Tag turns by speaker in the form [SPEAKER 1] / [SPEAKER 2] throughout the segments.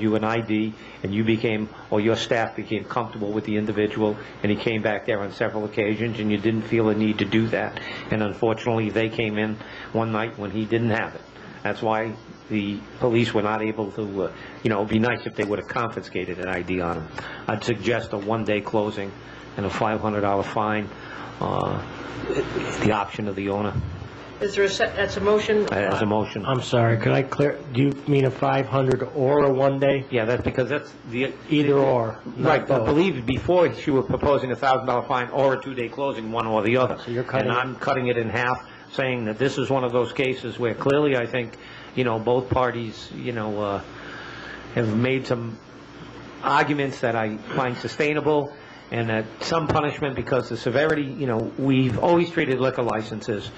[SPEAKER 1] you an ID, and you became, or your staff became comfortable with the individual, and he came back there on several occasions, and you didn't feel a need to do that. And unfortunately, they came in one night when he didn't have it. That's why the police were not able to, uh, you know, it'd be nice if they would have confiscated an ID on him. I'd suggest a one-day closing and a $500 fine, uh, the option of the owner, uh,
[SPEAKER 2] Is there a, se- that's a motion?
[SPEAKER 1] as a motion.
[SPEAKER 3] I'm sorry, could I clear, do you mean a 500 or a one day?
[SPEAKER 1] Yeah, that's because that's the...
[SPEAKER 3] Either or,
[SPEAKER 1] Right,
[SPEAKER 3] not
[SPEAKER 1] but I
[SPEAKER 3] both.
[SPEAKER 1] believe before she was proposing a thousand dollar fine or a two-day closing, one or the other.
[SPEAKER 3] So you're cutting-
[SPEAKER 1] And I'm cutting it in half, saying that this is one of those cases where clearly I think, you know, both parties, you know, uh, have made some arguments that I find sustainable, and that some punishment, because the severity, you know, we've always treated liquor licenses,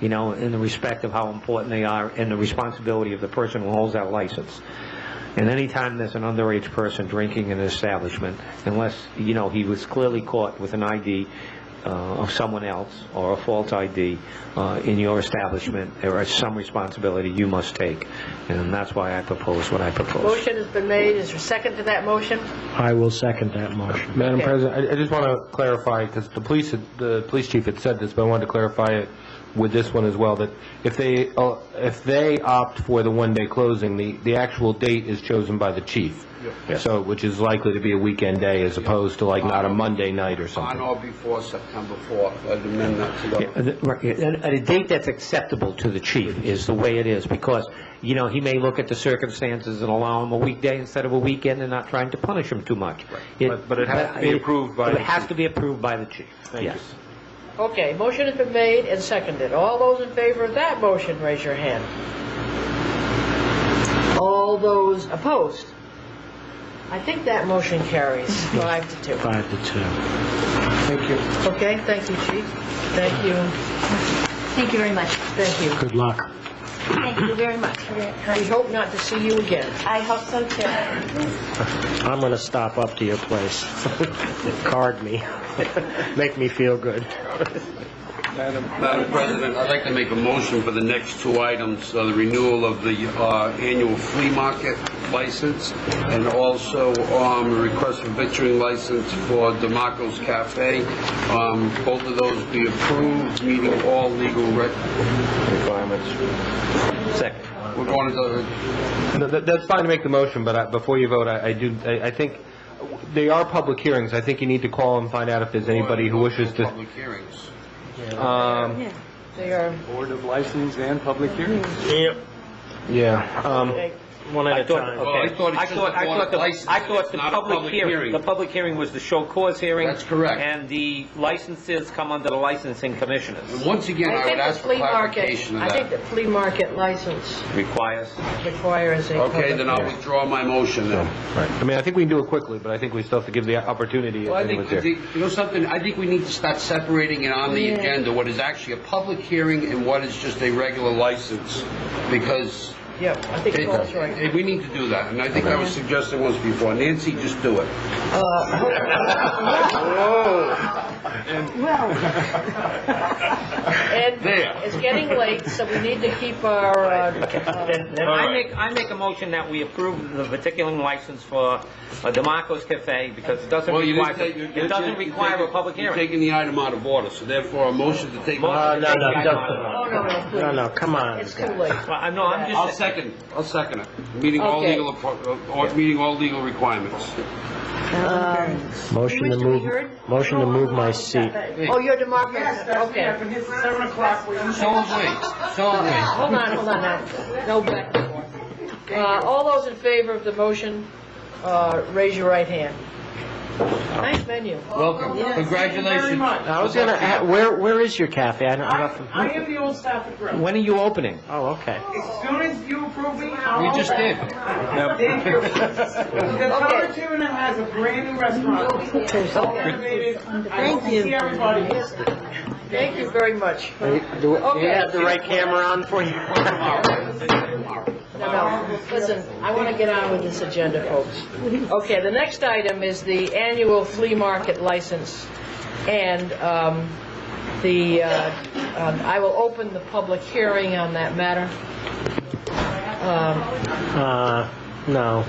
[SPEAKER 1] you know, in the respect of how important they are and the responsibility of the person who holds that license. And anytime there's an underage person drinking in an establishment, unless, you know, he was clearly caught with an ID uh, of someone else or a false ID uh, in your establishment, there is some responsibility you must take. And that's why I propose what I propose.
[SPEAKER 2] Motion has been made, is there a second to that motion?
[SPEAKER 3] I will second that motion.
[SPEAKER 4] Madam
[SPEAKER 2] Okay.
[SPEAKER 4] President, I- I just want to clarify, because the police, had- the police chief had said this, but I wanted to clarify it with this one as well, that if they, uh, if they opt for the one-day closing, the, the actual date is chosen by the chief. So, which is likely to be a weekend day as opposed to like not a Monday night or
[SPEAKER 5] On
[SPEAKER 4] something.
[SPEAKER 5] or before September 4th, at the midnight to
[SPEAKER 1] Yeah,
[SPEAKER 5] go.
[SPEAKER 1] the- Uh, right, yeah, and- and A date that's acceptable to the chief is the way it is, because, you know, he may look at the circumstances and allow him a weekday instead of a weekend and not trying to punish him too much.
[SPEAKER 4] But- but it has to be
[SPEAKER 1] but it-
[SPEAKER 4] approved by
[SPEAKER 1] but
[SPEAKER 4] the
[SPEAKER 1] It has
[SPEAKER 4] chief.
[SPEAKER 1] to be approved by the chief, yes.
[SPEAKER 2] Okay, motion has been made and seconded. All those in favor of that motion, raise your hand. All those opposed? I think that motion carries five to two.
[SPEAKER 3] Five to two.
[SPEAKER 2] Okay, thank you, chief. Thank you,
[SPEAKER 6] Thank you very much.
[SPEAKER 2] thank you.
[SPEAKER 3] Good luck.
[SPEAKER 6] Thank you very much.
[SPEAKER 2] We hope not to see you again.
[SPEAKER 6] I hope so too.
[SPEAKER 3] I'm going to stop up to your place. Card me. Make me feel good.
[SPEAKER 5] Madam President, I'd like to make a motion for the next two items, uh, the renewal of the uh, annual flea market license, and also um, a request for victualling license for DeMarco's Cafe. Um, Both of those be approved, meeting all legal rec...
[SPEAKER 1] Second.
[SPEAKER 5] We're going to the
[SPEAKER 4] No, that- That's fine to make the motion, but I- before you vote, I I do, I I think, they are public hearings. I think you need to call and find out if there's anybody who wishes to...
[SPEAKER 5] Public hearings.
[SPEAKER 4] um,
[SPEAKER 2] They are,
[SPEAKER 7] Board of License and Public Hearings.
[SPEAKER 3] Yep.
[SPEAKER 4] Yeah. um,
[SPEAKER 2] okay,
[SPEAKER 3] One at a time.
[SPEAKER 5] Well, I thought it said
[SPEAKER 1] I
[SPEAKER 5] board
[SPEAKER 1] thought the-
[SPEAKER 5] license.
[SPEAKER 1] I thought
[SPEAKER 5] It's
[SPEAKER 1] the
[SPEAKER 5] not a
[SPEAKER 1] public
[SPEAKER 5] public
[SPEAKER 1] hearing,
[SPEAKER 5] hearing.
[SPEAKER 1] the public hearing was the show cause hearing.
[SPEAKER 5] That's correct.
[SPEAKER 1] And the licenses come under the licensing commissioners.
[SPEAKER 5] Once again, I
[SPEAKER 2] I
[SPEAKER 5] would
[SPEAKER 2] think the
[SPEAKER 5] ask for
[SPEAKER 2] flea market,
[SPEAKER 5] clarification of
[SPEAKER 2] I
[SPEAKER 5] that.
[SPEAKER 2] think the flea market license
[SPEAKER 1] Requires.
[SPEAKER 2] requires a
[SPEAKER 5] Okay, then I'll
[SPEAKER 2] public-
[SPEAKER 5] withdraw my motion then.
[SPEAKER 4] Right. I mean, I think we can do it quickly, but I think we still have to give the opportunity if
[SPEAKER 5] Well, I think,
[SPEAKER 4] anyone's here.
[SPEAKER 5] I think- you know something, I think we need to start separating it on the agenda, what is actually a public hearing and what is just a regular license, because
[SPEAKER 2] Yeah, I think
[SPEAKER 5] it-
[SPEAKER 2] Paul's right.
[SPEAKER 5] it- we need to do that, and I think I was suggesting once before, Nancy, just do it.
[SPEAKER 2] And
[SPEAKER 5] There.
[SPEAKER 2] it's getting late, so we need to keep our, uh, uh,
[SPEAKER 1] Then I make, I make a motion that we approve the particular license for uh, DeMarco's Cafe because it doesn't
[SPEAKER 5] Well, you
[SPEAKER 1] require,
[SPEAKER 5] didn't take- you-
[SPEAKER 1] it doesn't
[SPEAKER 5] you- you
[SPEAKER 1] require a
[SPEAKER 5] take-
[SPEAKER 1] public
[SPEAKER 5] You're
[SPEAKER 1] hearing.
[SPEAKER 5] taking the item out of order, so therefore a motion to take.
[SPEAKER 1] Motion.
[SPEAKER 3] Uh, No, no,
[SPEAKER 2] oh,
[SPEAKER 3] don't-
[SPEAKER 2] no, no,
[SPEAKER 3] no,
[SPEAKER 2] please.
[SPEAKER 3] no, come on.
[SPEAKER 2] It's too late.
[SPEAKER 1] Well, I know, I'm
[SPEAKER 5] I'll
[SPEAKER 1] just,
[SPEAKER 5] second, I'll second it, meeting all
[SPEAKER 2] Okay.
[SPEAKER 5] legal, appro- or meeting all legal requirements.
[SPEAKER 3] Motion to
[SPEAKER 6] wish to be
[SPEAKER 3] move,
[SPEAKER 6] heard?
[SPEAKER 3] motion to move my seat.
[SPEAKER 2] Oh, you're democracy, okay.
[SPEAKER 5] So is we, so is we.
[SPEAKER 2] Hold on, hold on now. No back and forth. Uh, all those in favor of the motion, uh, raise your right hand. Nice menu.
[SPEAKER 5] Welcome, congratulations.
[SPEAKER 3] I was going to, where, where is your cafe? I don't, I don't-
[SPEAKER 8] I am the old Stafford Grill.
[SPEAKER 1] when are you opening?
[SPEAKER 3] oh, okay.
[SPEAKER 8] As soon as you approve me, I'll
[SPEAKER 5] We
[SPEAKER 8] open.
[SPEAKER 5] just did.
[SPEAKER 8] Thank you. The Tower Tuna has a brand new restaurant. It's all renovated. I hope to see everybody.
[SPEAKER 2] Thank you very much.
[SPEAKER 3] Do do we
[SPEAKER 2] Okay.
[SPEAKER 3] have the right camera on for you?
[SPEAKER 2] No, no, listen, I want to get on with this agenda, folks. Okay, the next item is the annual flea market license, and um, the, uh, um, I will open the public Um, hearing on that matter.
[SPEAKER 3] Uh, no.